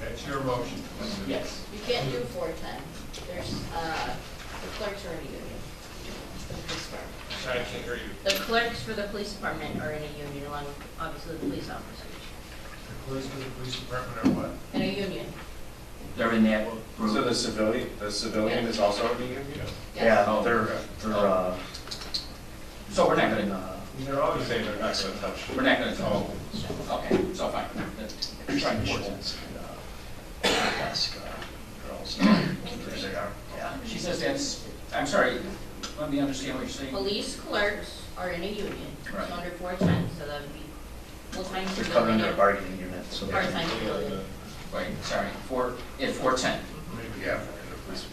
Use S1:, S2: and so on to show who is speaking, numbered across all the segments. S1: That's your motion.
S2: Yes, you can't do four ten. There's, uh, the clerks are in a union. for the police department.
S1: I can't hear you.
S2: The clerks for the police department are in a union along with, obviously, the police officers.
S1: The clerks of the police department are what?
S2: In a union,
S3: They're in that
S4: So
S3: group.
S4: the civilian, the civilian is also a union?
S2: yes.
S3: Oh.
S4: They're, they're, uh,
S3: So we're not gonna,
S1: They're always
S4: saying they're not gonna touch.
S3: we're not gonna
S1: Oh,
S3: talk. Okay, so fine. That's- Try and force it.
S4: Girls.
S1: there they are.
S3: She says that's, I'm sorry, let me understand what you're saying.
S2: Police clerks are in a union, it's
S3: Right.
S2: under four ten, so that would be full-time
S5: They're covered
S2: civilian
S5: under a
S2: and
S5: bargaining unit, so.
S2: part-time civilian.
S3: Wait, sorry, four, at four ten.
S1: Maybe after the police.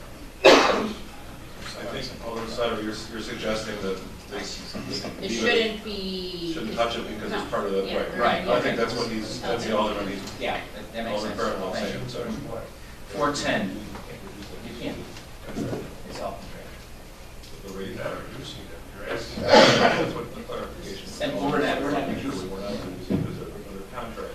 S4: I think, Alderman Snyder, you're, you're suggesting that this.
S2: It shouldn't be.
S4: Shouldn't touch it because it's part of the,
S2: No, yeah,
S4: right.
S3: right.
S4: I think that's what he's, that's the Alderman, he's,
S3: Yeah, that- that makes
S4: Alderman
S3: sense.
S4: Fairwell
S3: Thank
S4: saying,
S3: you.
S4: sorry.
S3: Four ten, you can't, it's all.
S4: The way
S1: You're
S4: you
S1: not
S4: have it.
S1: reducing it, you're asking. That's what the clarification. is.
S3: And we're not, we're not confused.
S4: We're not reducing it because of the contract.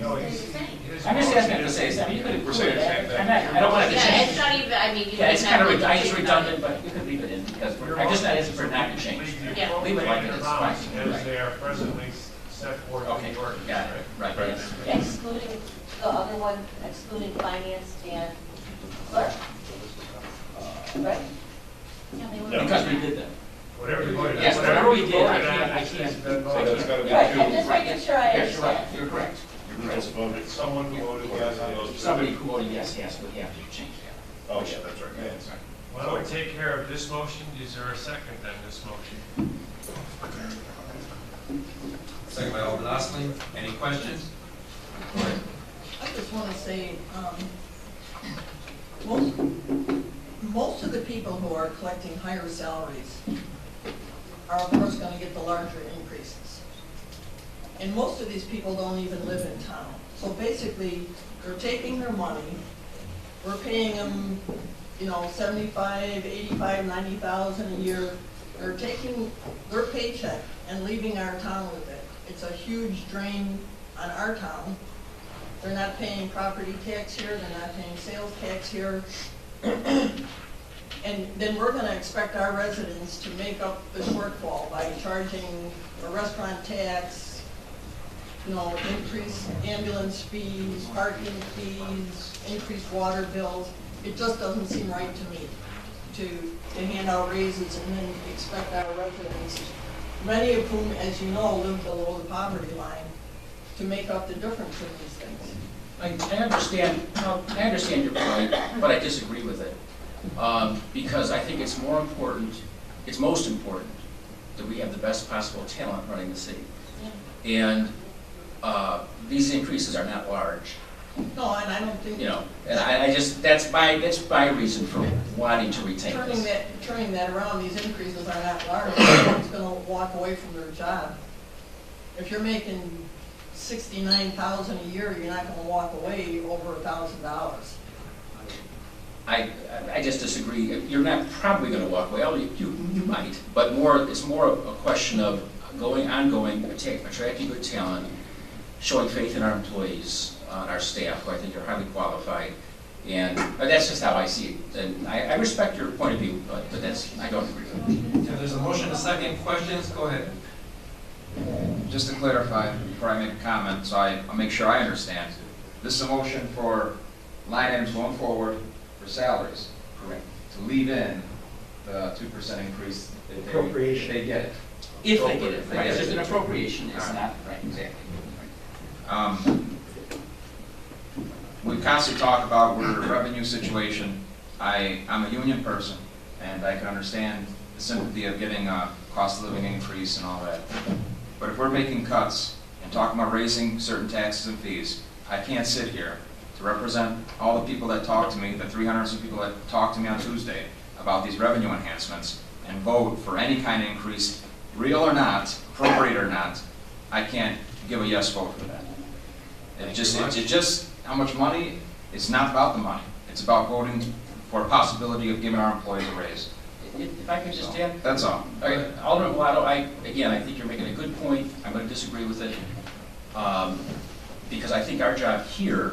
S1: No,
S2: Yes,
S1: he's-
S2: it's the same.
S1: his
S3: I'm just
S1: motion
S3: asking to
S1: is-
S3: say something, you could
S4: We're
S3: include
S4: saying the same
S3: that.
S4: thing.
S3: I'm not, I don't want to
S2: Yeah,
S3: change.
S2: it's not even, I mean, you.
S3: Yeah, it's
S2: don't
S3: kind
S2: have
S3: of,
S2: to
S3: I just
S2: think about it.
S3: redundant, but you could leave it in because
S1: Your
S3: we're, I guess
S1: motion
S3: that
S1: is
S3: is for not to change.
S1: Leave the
S2: Yeah.
S3: Leave it like it
S1: appropriate
S3: is,
S1: amounts
S3: fine,
S1: as
S3: right.
S1: they are presently set forth
S3: Okay,
S1: in the ordinance.
S3: got it, right,
S4: Right.
S3: yes.
S6: Excluding the other one, excluding finance and clerk. Right?
S4: No.
S3: Because we did that.
S1: Whatever you voted.
S3: Yes, whatever we did, I
S1: voted on
S3: can't- I
S1: is- is
S3: can't-
S1: been
S3: I
S4: So
S1: voted.
S4: that's gotta be two.
S6: Right, I'm just making sure I
S3: Yes, you're right,
S6: understand.
S3: you're correct.
S4: You just voted.
S1: Someone who voted yes on those.
S3: Somebody who voted yes, yes, we have to change that.
S4: Oh, yeah, that's right.
S3: That's right.
S1: Why don't we take care of this motion? Is there a second on this motion?
S7: Second by Alderman Osley. Any questions?
S8: I just want to say, um, most, most of the people who are collecting higher salaries are of course going to get the larger increases. And most of these people don't even live in town. So basically, they're taking their money, we're paying them, you know, seventy-five, eighty-five, ninety thousand a year. They're taking their paycheck and leaving our town with it. It's a huge drain on our town. They're not paying property tax here, they're not paying sales tax here. And then we're gonna expect our residents to make up the shortfall by charging a restaurant tax, you know, increased ambulance fees, parking fees, increased water bills. It just doesn't seem right to me to, to hand out raises and then expect our residents, many of whom, as you know, live below the poverty line, to make up the difference in these things.
S3: I, I understand, no, I understand your point, but I disagree with it. Um, because I think it's more important, it's most important, that we have the best possible talent running the city. And, uh, these increases are not large,
S8: No, and I don't think.
S3: you know, and I, I just, that's my, that's my reason for wanting to retain
S8: Turning
S3: this.
S8: that, turning that around, these increases are not large, someone's gonna walk away from their job. If you're making sixty-nine thousand a year, you're not gonna walk away over a thousand dollars.
S3: I, I just disagree, you're not probably gonna walk away, although you, you you might, but more, it's more of a question of going, ongoing, atta- attracting good talent, showing faith in our employees, uh, and our staff, who I think are highly qualified, and, but that's just how I see it, and I, I respect your point of view, but, but that's, I don't agree with it.
S7: If there's a motion, a second, questions, go ahead.
S9: Just to clarify, before I make a comment, so I, I'll make sure I understand. This is a motion for line items going forward for salaries,
S3: Correct.
S9: to leave in the two percent increase if they.
S5: Appropriation.
S9: They get it.
S3: If they get it,
S9: If they
S3: right, if
S9: get
S3: there's
S9: it.
S3: an appropriation, it's not, right,
S9: Exactly. Um, We constantly talk about we're a revenue situation. I, I'm a union person, and I can understand the sympathy of getting a cost of living increase and all that. But if we're making cuts and talking about raising certain taxes and fees, I can't sit here to represent all the people that talk to me, the 300 some people that talk to me on Tuesday about these revenue enhancements, and vote for any kind of increase, real or not, appropriate or not, I can't give a yes vote for that. It just, it it just, how much money, it's not about the money. It's about voting for a possibility of giving our employees a raise.
S3: If if I could just add,
S9: That's all.
S3: Okay, Alderman Waddle, I, again, I think you're making a good point, I'm gonna disagree with it, um, because I think our job here